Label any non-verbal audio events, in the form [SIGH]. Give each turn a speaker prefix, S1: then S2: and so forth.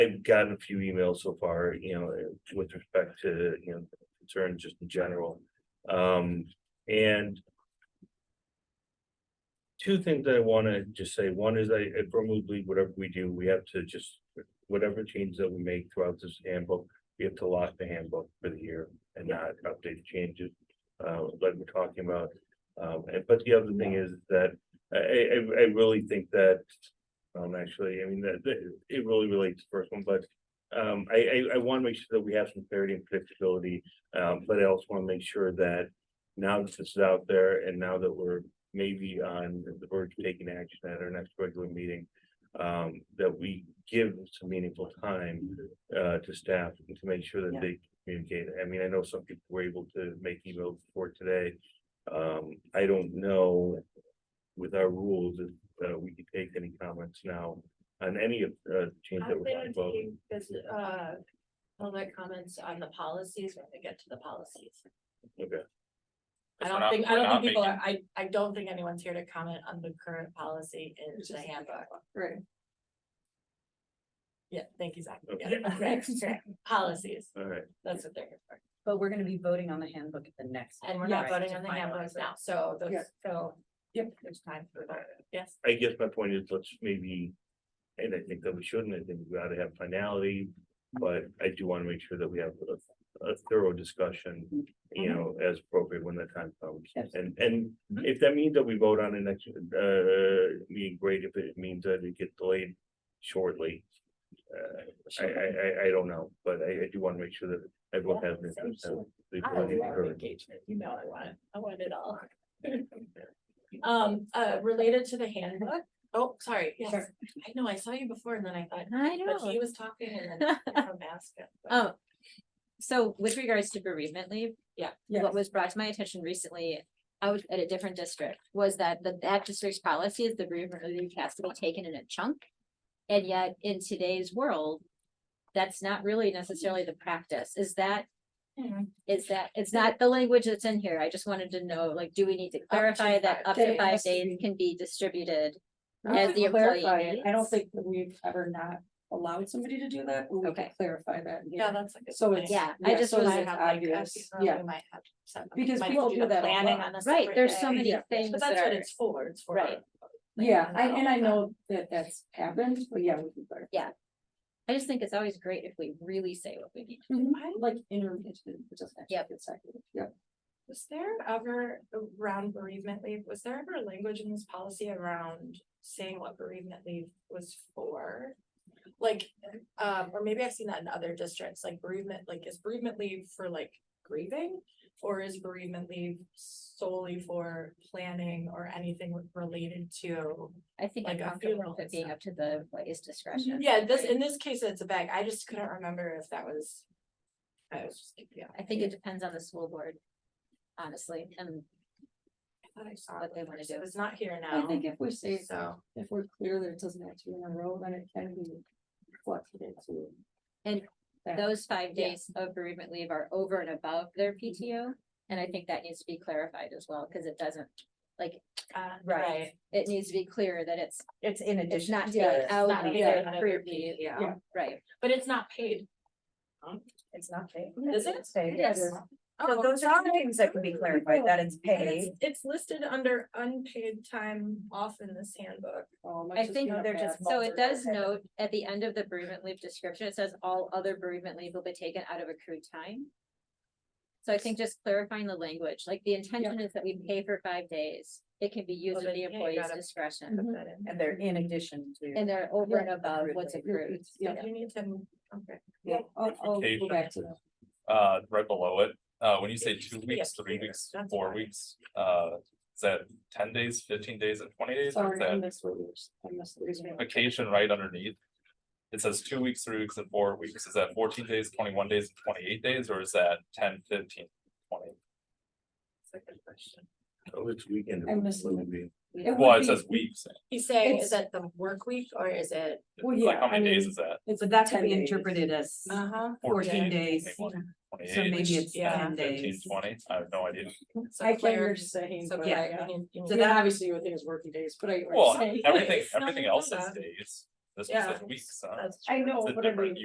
S1: I've gotten a few emails so far, you know, with respect to, you know, concerns just in general. Um, and. Two things that I wanna just say, one is I I firmly believe whatever we do, we have to just, whatever changes that we make throughout this handbook. We have to lock the handbook for the year and not update the changes, uh, like we're talking about. Um, and but the other thing is that I I I- I really think that. Um, actually, I mean, that that- it really relates to the first one, but um, I I I want to make sure that we have some clarity and predictability. Um, but I also want to make sure that now that this is out there and now that we're maybe on the verge of taking action at our next regular meeting. Um, that we give some meaningful time uh to staff to make sure that
S2: Yeah.
S1: they communicate. I mean, I know some people were able to make emails before today. Um, I don't know with our rules, if uh we can take any comments now on any of uh change that
S3: I'm
S1: we're talking
S3: gonna
S1: about.
S3: take this, uh, public comments on the policies when we get to the policies.
S1: Okay,
S3: I
S4: We're
S3: don't
S4: not-
S3: think, I
S4: we're
S3: don't
S4: not
S3: think people are, I, I don't think anyone's here to comment on the current policy in
S2: It's
S3: the
S2: just-
S3: handbook.
S2: Right.
S3: Yeah, thank you, Zach.
S1: Okay.
S2: [LAUGHS]
S3: Yeah, right, right. Policies,
S1: all right.
S3: that's what they're here for.
S5: But we're gonna be voting on the handbook at the next.
S3: And we're not
S5: Right,
S3: voting
S5: to
S3: on the
S5: finalize
S3: handbooks
S5: it.
S3: now, so
S2: Yeah.
S3: those, so.
S2: Yep.
S3: There's time for that. Yes,
S1: I guess my point is, let's maybe, and I think that we shouldn't, I think we ought to have finality. But I do wanna make sure that we have a, a thorough discussion, you know, as appropriate when the time comes. And, and if that means that we vote on it next, uh, meeting, great, if it means that it gets delayed shortly. Uh, I, I, I, I don't know, but I, I do wanna make sure that everyone has. an interest in the
S3: I
S1: voting
S3: love
S1: occurring.
S3: engagement, you know, I want, it. I want it all. [LAUGHS] Um, uh, related to the handbook, oh, sorry, yes,
S2: Sure.
S3: I know, I saw you before and then I thought,
S5: I
S3: But he
S5: know.
S3: was talking
S2: [LAUGHS]
S3: and then I'm from Aspen. but-
S5: Oh. So with regards to bereavement leave,
S2: Yes.
S5: what was brought to my attention recently, I was at a different district, was that the, that district's policy is the bereavement leave has to be taken in a chunk. And yet in today's world, that's not really necessarily the practice. Is that,
S3: Mm-hmm,
S5: is that, it's not the language that's in here. I just wanted to know, like, do we need to clarify that
S3: five
S5: up to
S2: days.
S5: five days can be distributed?
S2: We
S5: as
S2: could
S5: the employee
S2: clarify it. I don't
S5: needs.
S2: think that we've ever not allowed somebody to do that. but We could
S5: Okay.
S2: clarify that.
S3: Yeah, that's like.
S2: So it's-
S5: Yeah, I
S2: Yeah,
S5: just
S2: so
S5: was.
S2: it's obvious, yeah. Because people do that a
S3: Planning
S2: lot.
S3: on a
S5: Right,
S3: separate
S5: there's
S3: day.
S5: so many
S2: Yeah.
S5: things
S3: But
S5: that
S3: that's what
S5: are,
S3: it's for, it's for.
S5: Right.
S2: Yeah, I, and I know that that's happened, but yeah, we can clarify.
S5: I just think it's always great if we really say what we need.
S2: I like intermittent, it doesn't actually
S5: Yep.
S2: get seconded. Yep.
S3: Was there ever around bereavement leave, was there ever language in this policy around saying what bereavement leave was for? Like, um, or maybe I've seen that in other districts, like bereavement, like is bereavement leave for like grieving? Or is bereavement leave solely for planning or anything related to?
S5: I think I'm
S3: like a
S5: comfortable
S3: funeral
S5: with it
S3: and
S5: being
S3: stuff.
S5: up to the employee's discretion.
S2: Mm-hmm.
S3: Yeah, this, in this case, it's a bag. I just couldn't remember if that was. I was just, yeah.
S5: I think it depends on the school board, honestly, and
S3: I thought I saw
S5: what
S3: it
S5: they
S3: before,
S5: wanna
S3: so
S5: do.
S3: It's not here
S2: I
S3: now,
S2: think if we say,
S3: so.
S2: if we're clear that it doesn't have to be in a row, then it can be reflected into.
S5: And
S2: that.
S5: those five
S2: Yeah.
S5: days of bereavement leave are over and above
S3: Mm-hmm.
S5: their PTO. And I think that needs to be clarified as well, because it doesn't,
S3: uh,
S5: Right. it needs to be clear that it's,
S6: It's in
S5: it's
S6: addition.
S5: not
S6: to
S5: taken
S6: the-
S5: out
S3: not
S5: of
S3: taken
S5: their
S3: out of
S5: career
S3: their PTO.
S5: PTO.
S2: Yeah.
S5: Right,
S3: But it's not paid.
S6: It's not paid.
S3: Is it?
S6: Paid.
S5: Yes.
S6: So Oh, those are the things that can be clarified, that it's
S3: And
S6: paid.
S3: It's, it's listed under unpaid time off in this handbook.
S2: Oh,
S5: I
S2: let's just
S5: think
S2: leave it
S6: they're
S2: at
S6: just
S2: that.
S5: so it
S6: Multiple
S5: does
S6: times.
S5: note at the end of the bereavement leave description, it says all other bereavement leave will be taken out of accrued time. So I think just clarifying the language, like the intention is that we pay for five days, it can be used
S3: Well,
S5: at
S3: then,
S5: the
S3: yeah, you
S5: employee's
S3: gotta-
S5: discretion.
S2: Mhm.
S6: Mm-hmm. And they're in addition to.
S5: And they're over and
S6: Yeah.
S5: above what's
S6: Accrued
S5: accrued.
S2: It's- Yeah,
S3: You need to, okay.
S2: yeah, I'll, I'll go
S4: Notification.
S2: back to that.
S4: Uh, right below it, uh, when you say
S3: It used
S4: two
S3: to be
S4: weeks,
S3: up
S4: three
S3: here,
S4: weeks,
S3: that's
S4: four
S3: why.
S4: weeks, uh, is that ten days, fifteen days and twenty days? Or is
S2: Sorry, I
S4: that
S2: missed what you were- I missed what you were saying.
S4: vacation right underneath? It says two weeks, three weeks and four weeks. Is that fourteen days, twenty-one days, and twenty-eight days, or is that 10, 15, 20?
S3: That's a good question.
S1: Oh, it's weekend.
S2: I missed
S1: It would be-
S2: It
S4: Well,
S2: would
S4: it says
S2: be-
S4: weeks.
S3: He's saying, is
S2: It's-
S3: that the work week or is it?
S2: Well,
S4: Like,
S2: yeah,
S4: how
S2: I
S4: many days
S2: mean,
S4: is that?
S2: it's
S6: That
S2: ten
S6: can be
S2: days.
S6: interpreted as
S3: Uh-huh.
S6: fourteen
S3: Yeah.
S6: days.
S4: Twenty-one,
S6: So
S4: twenty-eight,
S6: maybe it's
S3: yeah,
S6: ten
S4: fifteen,
S6: days.
S4: twenty, I have no idea.
S3: So
S2: I can
S3: clear-
S2: understand,
S3: So,
S2: but
S3: yeah,
S2: yeah.
S3: you need- you
S2: So [LAUGHS]
S3: need-
S2: that obviously you would think is working days, but I.
S4: Well,
S2: I-
S4: everything,
S3: No,
S4: everything
S3: no,
S4: else
S3: no.
S4: is days.
S3: this was
S7: Yeah.
S3: said weeks, huh?
S7: That's
S4: I know,
S3: It's a
S4: but I
S3: different
S4: mean.